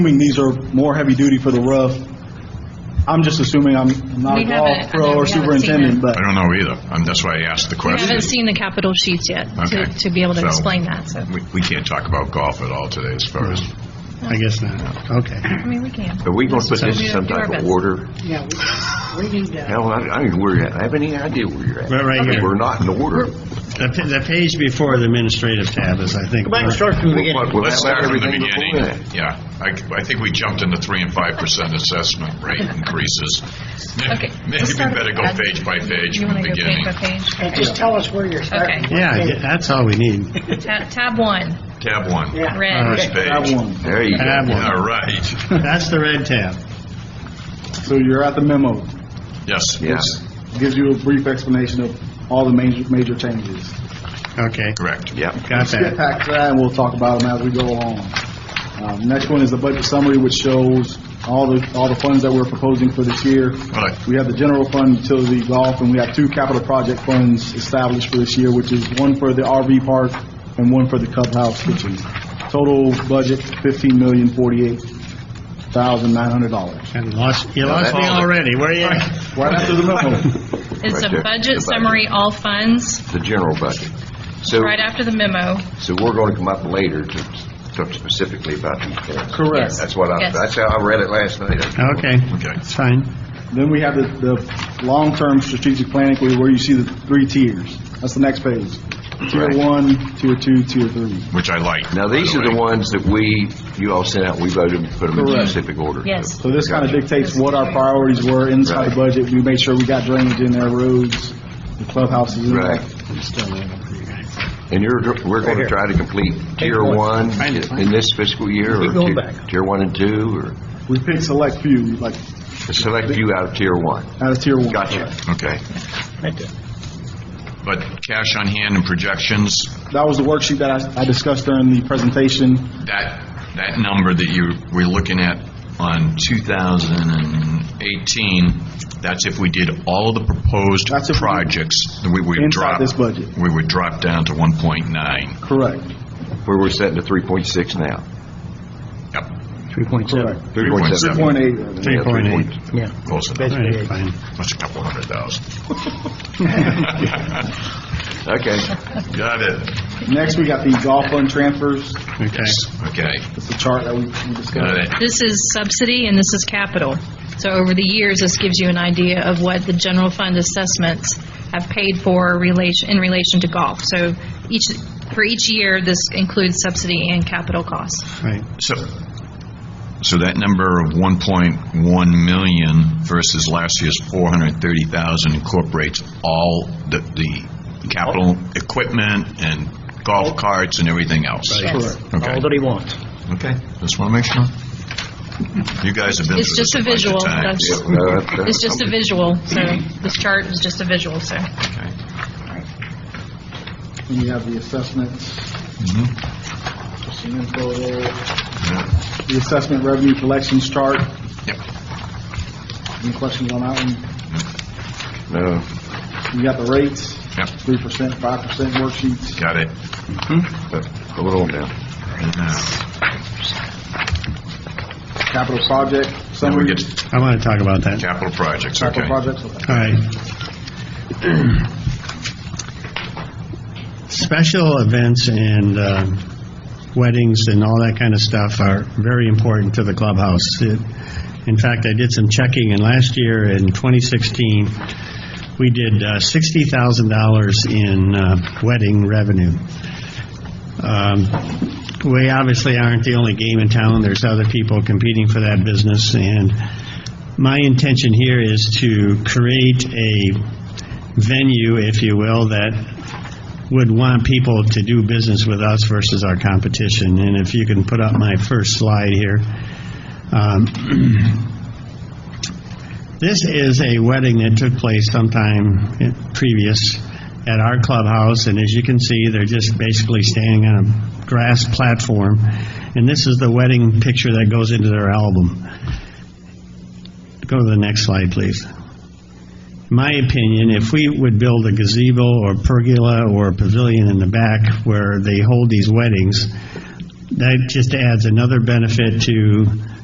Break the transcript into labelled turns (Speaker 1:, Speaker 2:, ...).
Speaker 1: assuming these are more heavy-duty for the rough. I'm just assuming, I'm not
Speaker 2: We
Speaker 1: a golf
Speaker 2: haven't- I
Speaker 1: pro
Speaker 2: know
Speaker 1: or
Speaker 2: we haven't seen
Speaker 1: superintendent,
Speaker 2: it.
Speaker 1: but
Speaker 3: I don't know either. Um that's why I asked the
Speaker 2: I
Speaker 3: question.
Speaker 2: haven't seen the capital sheets yet to,
Speaker 3: Okay.
Speaker 2: to be able to
Speaker 3: So-
Speaker 2: explain that, so,
Speaker 3: We, we can't talk about golf at all today as far as,
Speaker 4: I guess not. Okay.
Speaker 2: I mean, we can.
Speaker 5: Are we going to put
Speaker 2: So
Speaker 5: this
Speaker 2: we
Speaker 5: in some
Speaker 2: do our
Speaker 5: type of
Speaker 2: best.
Speaker 5: order?
Speaker 6: Yeah, we we need to,
Speaker 5: Hell, I I don't know where you're at. I have any idea where you're
Speaker 4: Right,
Speaker 5: at.
Speaker 4: right here.
Speaker 5: We're not in order.
Speaker 4: The, pa- the page before the administrative tab is, I think.
Speaker 6: back and start from the beginning.
Speaker 5: We'll
Speaker 3: let's
Speaker 5: have
Speaker 3: start from the
Speaker 5: everything before
Speaker 3: beginning.
Speaker 5: that.
Speaker 3: Yeah, I, I think we jumped into three and five percent assessment rate increases.
Speaker 2: Okay,
Speaker 3: Maybe
Speaker 2: let's
Speaker 3: we
Speaker 2: start
Speaker 3: better go
Speaker 2: at-
Speaker 3: page by page
Speaker 2: You
Speaker 3: from
Speaker 2: want
Speaker 3: the
Speaker 2: to go page
Speaker 3: beginning.
Speaker 2: by page?
Speaker 6: and just tell us where you're starting.
Speaker 2: Okay.
Speaker 4: Yeah, yeah, that's all we need.
Speaker 2: Ta- Tab one,
Speaker 3: Tab one.
Speaker 6: Yeah.
Speaker 4: All
Speaker 2: red.
Speaker 4: right.
Speaker 3: First
Speaker 1: I
Speaker 3: page.
Speaker 1: won.
Speaker 5: There you go.
Speaker 4: Tab one.
Speaker 3: All right,
Speaker 4: That's the red tab.
Speaker 1: So you're at the memo.
Speaker 3: yes.
Speaker 5: Yeah.
Speaker 1: Gives you a brief explanation of all the major, major changes.
Speaker 4: Okay,
Speaker 3: Correct.
Speaker 5: Yep.
Speaker 4: got
Speaker 1: Get
Speaker 4: that.
Speaker 1: back to that, and we'll talk about them as we go along. Um, Next one is the budget summary, which shows all the, all the funds that we're proposing for this year.
Speaker 3: Right.
Speaker 1: We have the general fund, utility, golf, and we have two capital project funds established for this year, which is one for the RV park and one for the clubhouse kitchen. Total budget, fifteen million forty-eight thousand nine hundred dollars.
Speaker 4: And lost, you lost me
Speaker 5: that's-
Speaker 4: already. Where are you? at?
Speaker 1: Right after the memo.
Speaker 2: It's a
Speaker 5: Right there. The
Speaker 2: budget
Speaker 5: budget.
Speaker 2: summary, all funds,
Speaker 5: The general budget. So,
Speaker 2: right after the memo.
Speaker 5: so we're going to come up later to talk specifically about these things.
Speaker 1: Correct.
Speaker 5: That's what I,
Speaker 2: Yes.
Speaker 5: that's how I read it last night.
Speaker 4: Okay,
Speaker 3: Okay.
Speaker 4: it's fine.
Speaker 1: Then we have the, the long-term strategic planning, where where you see the three tiers. That's the next page. Tier
Speaker 5: Right.
Speaker 1: one, tier two, tier three.
Speaker 3: Which I like.
Speaker 5: Now,
Speaker 3: by
Speaker 5: these are
Speaker 3: way.
Speaker 5: the ones that we, you all sent out, we voted and put them in
Speaker 1: Correct.
Speaker 5: specific order.
Speaker 2: Yes.
Speaker 1: So this kind of
Speaker 5: Gotcha.
Speaker 1: dictates what our priorities were inside the budget. We made sure we got drainage in there, roads, the clubhouses in there.
Speaker 5: Right. And you're, we're going to try to complete tier one in this fiscal year? or
Speaker 6: going
Speaker 5: tier-
Speaker 6: back.
Speaker 5: Tier one and two, or
Speaker 1: We picked select few, like,
Speaker 5: select few out of tier one?
Speaker 1: out of tier one.
Speaker 5: Gotcha.
Speaker 3: Okay. But cash on hand and projections,
Speaker 1: That was the worksheet that I, I discussed during the presentation.
Speaker 3: that, that number that you were looking at on 2018, that's if we did all of the proposed
Speaker 1: That's if we-
Speaker 3: projects, we would
Speaker 1: Inside
Speaker 3: drop.
Speaker 1: this budget.
Speaker 3: We would drop down to 1.9.
Speaker 1: Correct.
Speaker 5: Where we're setting to 3.6 now.
Speaker 3: Yep.
Speaker 1: Correct.
Speaker 5: 3.7.
Speaker 1: Point eight.
Speaker 5: Yeah,
Speaker 4: 3.8.
Speaker 5: 3.8.
Speaker 3: Close
Speaker 4: All
Speaker 3: enough.
Speaker 4: right, fine.
Speaker 3: That's a couple hundred thousand.
Speaker 5: Okay.
Speaker 3: Got it.
Speaker 1: Next, we got the golf fund transfers.
Speaker 4: Okay.
Speaker 3: Okay,
Speaker 1: That's the chart that we we discussed.
Speaker 3: got it.
Speaker 2: This is subsidy and this is capital. So over the years, this gives you an idea of what the general fund assessments have paid for relation, in relation to golf. So each, for each year, this includes subsidy and capital costs.
Speaker 4: Right.
Speaker 3: So, so that number of 1.1 million versus last year's 430,000 incorporates all the, the capital equipment and golf carts and everything else?
Speaker 1: Correct.
Speaker 3: Okay,
Speaker 6: he wants.
Speaker 3: okay, just want to make sure. You guys have been
Speaker 2: It's
Speaker 3: through this
Speaker 2: just a
Speaker 3: bunch of
Speaker 2: visual,
Speaker 3: times.
Speaker 2: that's,
Speaker 1: Uh,
Speaker 2: it's just a visual, so this chart is just a visual, so.
Speaker 1: And you have the assessments.
Speaker 3: Mm-hmm.
Speaker 1: Just some info there. The assessment revenue collections chart.
Speaker 3: Yep.
Speaker 1: Any questions on that one?
Speaker 5: No.
Speaker 1: You got the rates,
Speaker 3: Yep,
Speaker 1: three percent, five percent worksheets.
Speaker 3: got it.
Speaker 5: but Hold on now.
Speaker 1: Capital project
Speaker 3: Then we
Speaker 1: summary.
Speaker 3: get to
Speaker 4: I want to talk about that.
Speaker 3: capital projects, okay.
Speaker 1: Capital projects.
Speaker 4: All right. Special events and um, weddings and all that kind of stuff are very important to the clubhouse. It- In fact, I did some checking, and last year in 2016, we did uh, $60,000 in uh, wedding revenue. Um, We obviously aren't the only game in town. There's other people competing for that business, and my intention here is to create a venue, if you will, that would want people to do business with us versus our competition. And if you can put up my first slide here. Um, This is a wedding that took place sometime in- previous at our clubhouse, and as you can see, they're just basically standing on a grass platform. And this is the wedding picture that goes into their album. Go to the next slide, please. My opinion, if we would build a gazebo or pergola or a pavilion in the back where they hold these weddings, that just adds another benefit to